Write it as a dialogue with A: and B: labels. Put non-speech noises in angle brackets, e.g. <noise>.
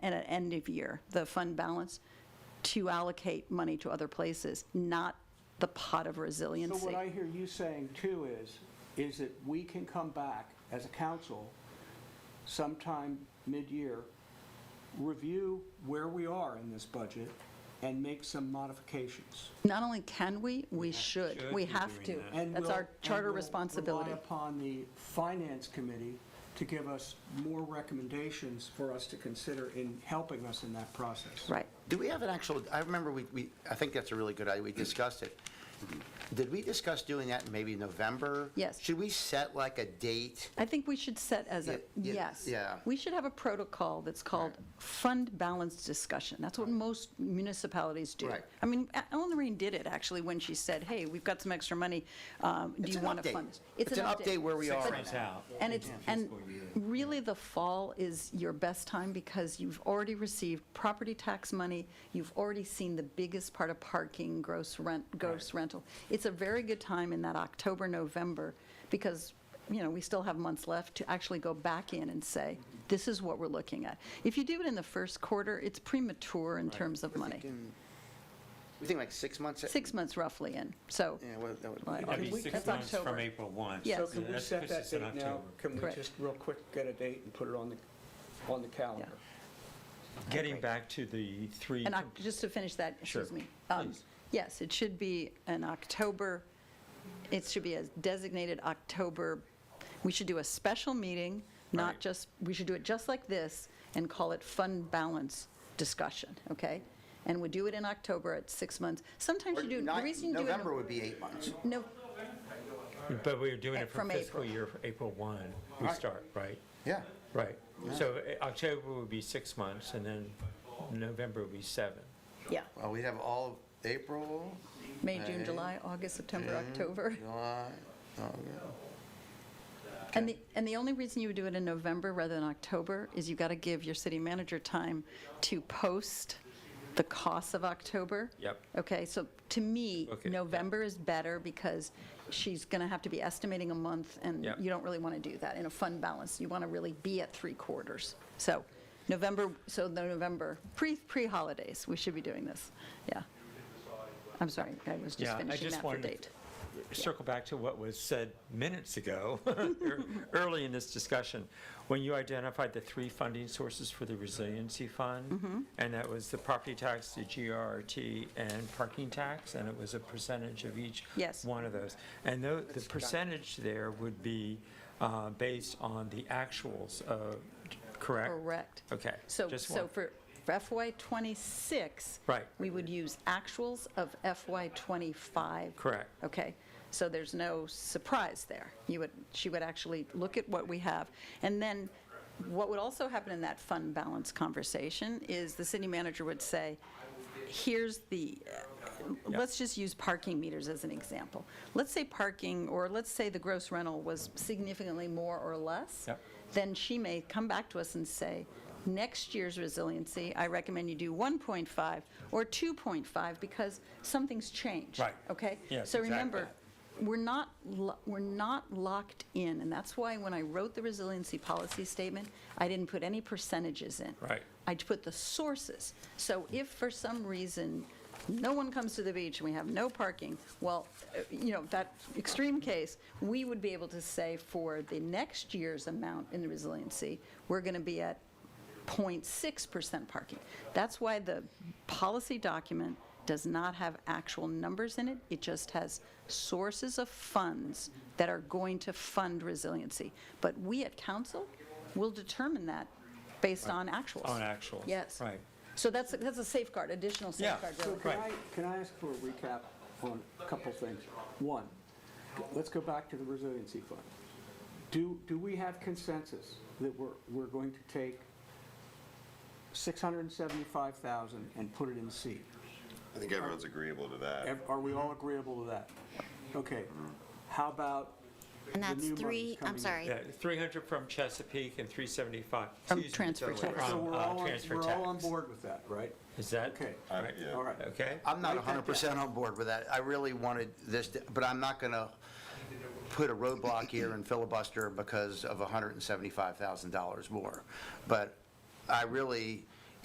A: and at end of year, the fund balance, to allocate money to other places, not the pot of
B: So
A: resiliency.
B: what I hear you saying too is, is that we can come back as a council sometime mid-year, review where we are in this budget and make some modifications.
A: Not only can we, we should, we
C: be
A: have to.
C: doing that.
B: And
A: That's
B: we'll-
A: our
B: and
A: charter
B: we'll
A: responsibility.
B: Rely upon the finance committee to give us more recommendations for us to consider in helping us in that process.
A: Right.
D: Do we have an actual, I remember we, we, I think that's a really good idea, we discussed it. Did we discuss doing that in maybe November?
A: Yes.
D: Should we set like a date?
A: I think we should set as a,
D: Yeah, yeah,
A: yes.
D: yeah.
A: We should have a protocol that's called fund balance discussion. That's what most municipalities do.
D: Right.
A: I mean, A- Ellen Lorraine did it, actually, when she said, hey, we've got some extra money. um, Do
D: It's
A: you
D: an
A: want to
D: update.
A: fund this?
D: It's an update where we are.
C: It's out.
A: And it's, and
C: Fiscal year.
A: really, the fall is your best time because you've already received property tax money, you've already seen the biggest part of parking, gross rent, gross rental. It's a very good time in that October, November, because, you know, we still have months left to actually go back in and say,
C: Mm-hmm.
A: this is what we're looking at. If you do it in the first quarter, it's premature in terms of money.
D: We think like six months?
A: Six months roughly in, so.
D: Yeah, what- that would-
A: Well,
C: That'd
B: Can
C: be
B: we-
C: six
A: that's
C: months from
A: October.
C: April 1.
A: Yes.
B: So
A: Yeah,
B: can we
C: That's
B: set
C: puts
B: that
C: us in
B: date now?
C: October.
B: Can we
A: Correct.
B: just real quick get a date and put it on the, on the calendar?
E: Getting back to the three,
A: And Oc- just to finish that,
E: Sure.
A: excuse me. um, Yes, it should be an October, it should be a designated October, we should do a special meeting, not
E: Right.
A: just, we should do it just like this and call it fund balance discussion, okay? And we do it in October at six months. Sometimes
D: Or
A: you do, the
D: nine-
A: reason you do it. in-
D: November would be eight months.
A: No,
E: but we were doing
A: Eh,
E: it from
A: from
E: fiscal
A: April.
E: year, April 1, we
D: Right.
E: start, right?
D: Yeah.
E: Right. So eh, October would be six months, and then November would be seven.
A: yeah,
D: Well, we'd have all of April,
A: May, June,
D: May,
A: July, August, September,
D: June,
A: October.
D: July, August.
A: And the, and the only reason you would do it in November rather than October is you got to give your city manager time to post the costs of October.
E: Yep.
A: Okay, so to me,
E: Okay, yeah.
A: November is better because she's going to have to be estimating a month, and
E: Yep.
A: you don't really want to do that in a fund balance. You want to really be at three quarters. So November, so the November, pre, pre-holidays, we should be doing this. Yeah. I'm sorry, I was just
E: Yeah, I
A: finishing
E: just
A: that for
E: wanted to-
A: date.
E: Circle back to what was said minutes ago, <laughs> ear- early in this discussion, when you identified the three funding sources for the resiliency
A: Mm-hmm.
E: fund, and that was the property tax, the GRT, and parking tax, and it was a percentage of each
A: Yes.
E: one of those. And tho- the percentage there would be uh, based on the actuals, uh, correct?
A: Correct.
E: Okay.
A: So,
E: just
A: so
E: one-
A: for for FY '26.
E: Right.
A: We would use actuals of FY '25.
E: Correct.
A: Okay, so there's no surprise there. You would, she would actually look at what we have. And then what would also happen in that fund balance conversation is the city manager would say, here's the, uh, let's just use parking meters as an example. Let's say parking, or let's say the gross rental was significantly more or less.
E: Yep.
A: Then she may come back to us and say, next year's resiliency, I recommend you do 1.5 or 2.5 because something's changed.
E: Right.
A: Okay?
E: Yes,
A: So
E: exactly.
A: remember, we're not, lo- we're not locked in, and that's why when I wrote the resiliency policy statement, I didn't put any percentages in.
E: Right.
A: I put the sources. So if for some reason, no one comes to the beach and we have no parking, well, uh, you know, that extreme case, we would be able to say for the next year's amount in the resiliency, we're going to be at 0.6% parking. That's why the policy document does not have actual numbers in it. It just has sources of funds that are going to fund resiliency. But we at council will determine that based on actuals.
E: On actuals,
A: Yes.
E: right.
A: So that's, that's a safeguard, additional
E: Yeah.
A: safeguard.
B: So
A: really.
B: can I,
E: Right.
B: can I ask for a recap on a couple things? One, let's go back to the resiliency fund. Do, do we have consensus that we're, we're going to take 675,000 and put it in C?
F: I think everyone's agreeable to that.
B: Ev- Are we all agreeable to that? Okay, how about the
G: And
B: new
G: that's
B: monies
G: three,
B: coming
G: I'm
B: in?
G: sorry,
E: Yeah, 300 Uh, from Chesapeake and
A: From
E: 375. excuse me,
A: transfer
E: from,
A: tax.
B: So we're
E: uh,
B: all, on-
E: transfer
B: we're all on
E: tax.
B: board with that, right?
E: Is that?
B: Okay,
E: all
F: I-
E: right?
F: yeah.
B: all right.
E: Okay.
D: I'm not
B: Write that
D: 100% on board with that. I really wanted this, to- but I'm not going to put a roadblock here and filibuster because of $175,000 more. But I really